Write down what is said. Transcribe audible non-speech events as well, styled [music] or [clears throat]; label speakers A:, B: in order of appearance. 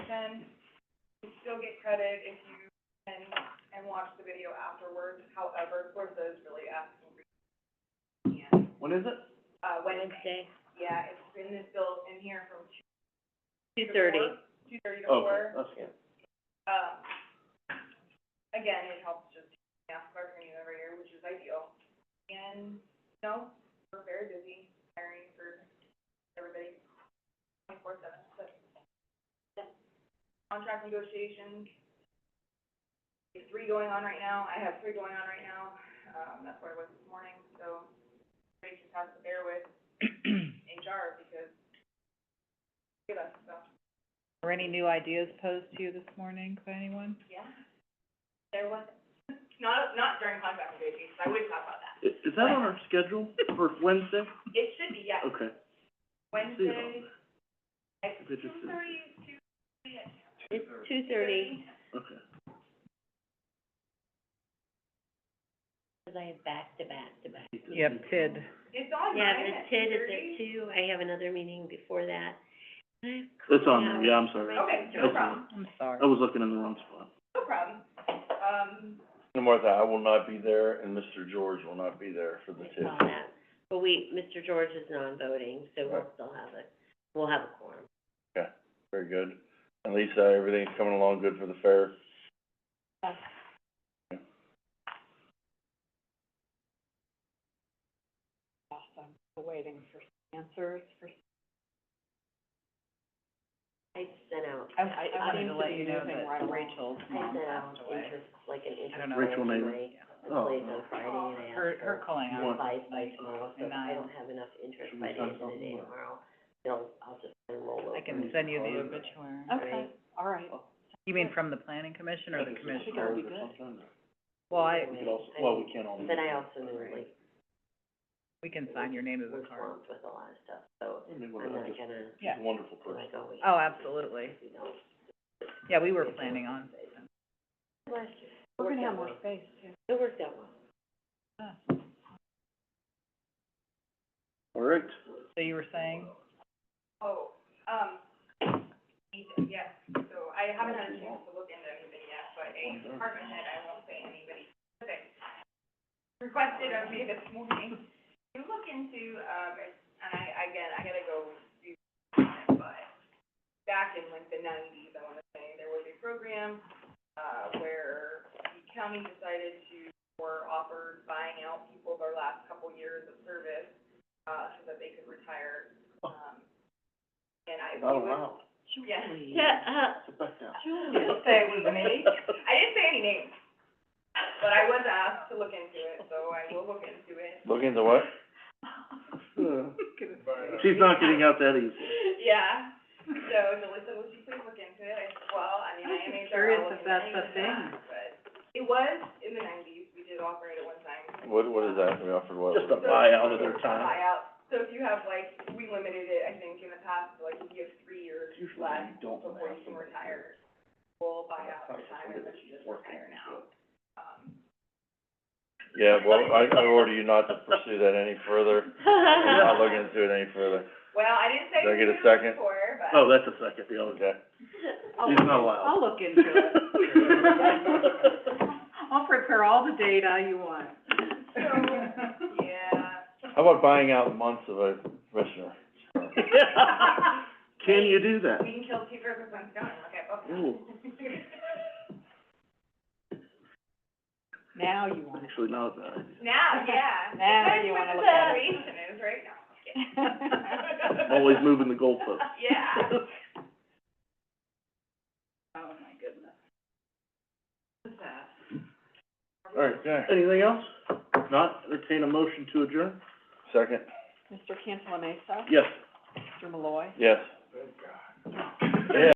A: you still get credit if you can, and watch the video afterwards, however, Florida is really asking for, and,
B: When is it?
A: uh, Wednesday,
C: Wednesday,
A: yeah, it's in this bill, in here from two
C: two
A: to
C: thirty.
A: four, two thirty to
B: Oh,
A: four,
B: that's good.
A: um, again, it helps just, yeah, for revenue every year, which is ideal. And, no, we're very busy hiring for everybody, twenty-four seven, but, yeah. Contract negotiations, there's three going on right now, I have three going on right now, um, that's where I was this morning, so, we just have to bear with [clears throat] HR, because, give us, so.
D: Were any new ideas posed to you this morning by anyone?
A: Yeah. There was, not, not during contract negotiations, I would talk about that.
B: Is, is that on our schedule for Wednesday?
A: It should be, yes,
B: Okay. See you
A: Wednesday,
B: on-
A: at
B: If it just
A: two thirty, two thirty, at
C: It's two thirty,
A: thirty.
B: Okay.
C: because I have back to back to back.
D: Yep, TID.
A: It's on
C: Yeah,
A: Oh, mine at
C: there's TID
A: two
C: is at
A: thirty.
C: two, I have another meeting before that. I have
B: It's on
C: call
B: there, yeah, I'm sorry.
C: out.
A: Okay, no
B: That's-
A: problem,
D: I'm sorry.
B: I was looking in the wrong spot.
A: no problem. Um,
E: And Martha, I will not be there, and Mr. George will not be there for the
C: I
E: TIF.
C: saw that. But we, Mr. George is non-voting, so we'll
E: Right.
C: still have a, we'll have a quorum.
E: Very good. And Lisa, everything's coming along good for the fair?
C: Yes.
E: Yeah.
D: Awesome, waiting for answers for.
C: I sent out, I,
D: I, I wanted to
C: I,
D: let you know that Rachel's
C: I
D: mom
C: sent out
D: passed away.
C: interest, like an interest.
D: I don't know.
B: Rachel
C: survey
B: Mayer.
C: to
B: Oh,
C: place
B: no.
C: on Friday, and I
D: Her,
C: asked
D: her calling out.
B: One.
C: by, by
D: Like,
C: tomorrow, so if I
D: nine.
C: don't have enough interest
B: Should we
C: by
B: sign
C: the end of the day
B: something or-
C: tomorrow, they'll, I'll just roll over.
D: I can send you the obituary.
C: Okay,
D: all right.
B: Oh.
D: You mean from the planning commission or the
B: Or
D: commissioner?
B: something, or-
D: Well, I,
B: We could also, well, we can't all.
C: But I also knew, like,
D: we can sign your name as
C: we're
D: a card.
C: swamped with a lot of stuff, so
B: I mean, well,
C: I'm
B: I
C: not
B: just-
C: gonna,
B: She's a wonderful
C: I'm
B: person.
C: like, oh, wait.
D: Oh, absolutely.
C: we don't.
D: Yeah, we were planning on.
C: Last year. We're gonna have more
D: space too.
C: It worked out well.
B: All right.
D: So you were saying?
A: oh, um, Ethan, yes, so I haven't had a chance to look into anything yet, but a department head, I won't say anybody specific, requested of me this morning, you look into, um, and I, again, I gotta go do, it, but back in like the nineties, I wanna say, there was a program, uh, where the county decided to, or offered buying out people their last couple years of service, uh, so that they could retire, um, and I.
B: Not allowed.
A: Yeah.
C: Shut up.
B: Sit back down.
A: I didn't say it was
E: [laughs]
A: me. I didn't say any names, but I was asked to look into it, so I will look into it.
E: Look into
A: [laughs]
E: what?
B: She's not getting out that easy.
A: [laughs] Yeah, so Melissa, would you please look into it? I said, well, I mean, I am
D: I'm
A: HR,
D: curious
A: I'll
D: if
A: look into it,
D: that's a thing.
A: But it was in the nineties, we did operate at one time.
E: What, what is that? We offered what?
B: Just a
A: So-
B: buyout of their time.
A: Buyout, so if you have like, we limited it, I think, in the past, to, like, if you have three years
B: Usually you
A: left
B: don't wanna
A: before
B: have
A: you can
B: somebody
A: retire, we'll buy out
B: That's
A: your
B: how
A: time
B: it's
A: and let you just
B: working.
A: retire now. Um,
E: Yeah, well, I, I order you not to pursue that any further, and not look into it any further.
A: Well, I didn't say
E: Do I get
A: who
E: a
A: it was
E: second?
A: for, but.
B: Oh, that's a second, the other
E: Okay.
B: She's not allowed.
D: I'll look into it.
A: [laughs]
B: [laughs]
D: I'll prepare all the data you want.
A: So, [laughs] yeah,
E: How about buying out months of a commissioner?
B: [laughs] Can you do that?
A: we can kill two birds with one stone, look at both.
B: Ooh.
A: [laughs]
D: Now you want
B: Actually, not that idea.
A: Now, yeah.
D: Now
A: Depends
D: you
A: what
D: wanna
A: the
D: look at it.
A: Valuation is right now.
D: it.
B: Always moving the goalposts.
A: [laughs] Yeah.
D: [laughs] Oh, my goodness.
E: All right, yeah.
B: Anything else? If Not entertain a motion to adjourn?
E: Second,
D: Mr. Cantala Mesa,
B: Yes.
D: Mr. Malloy,
E: yes.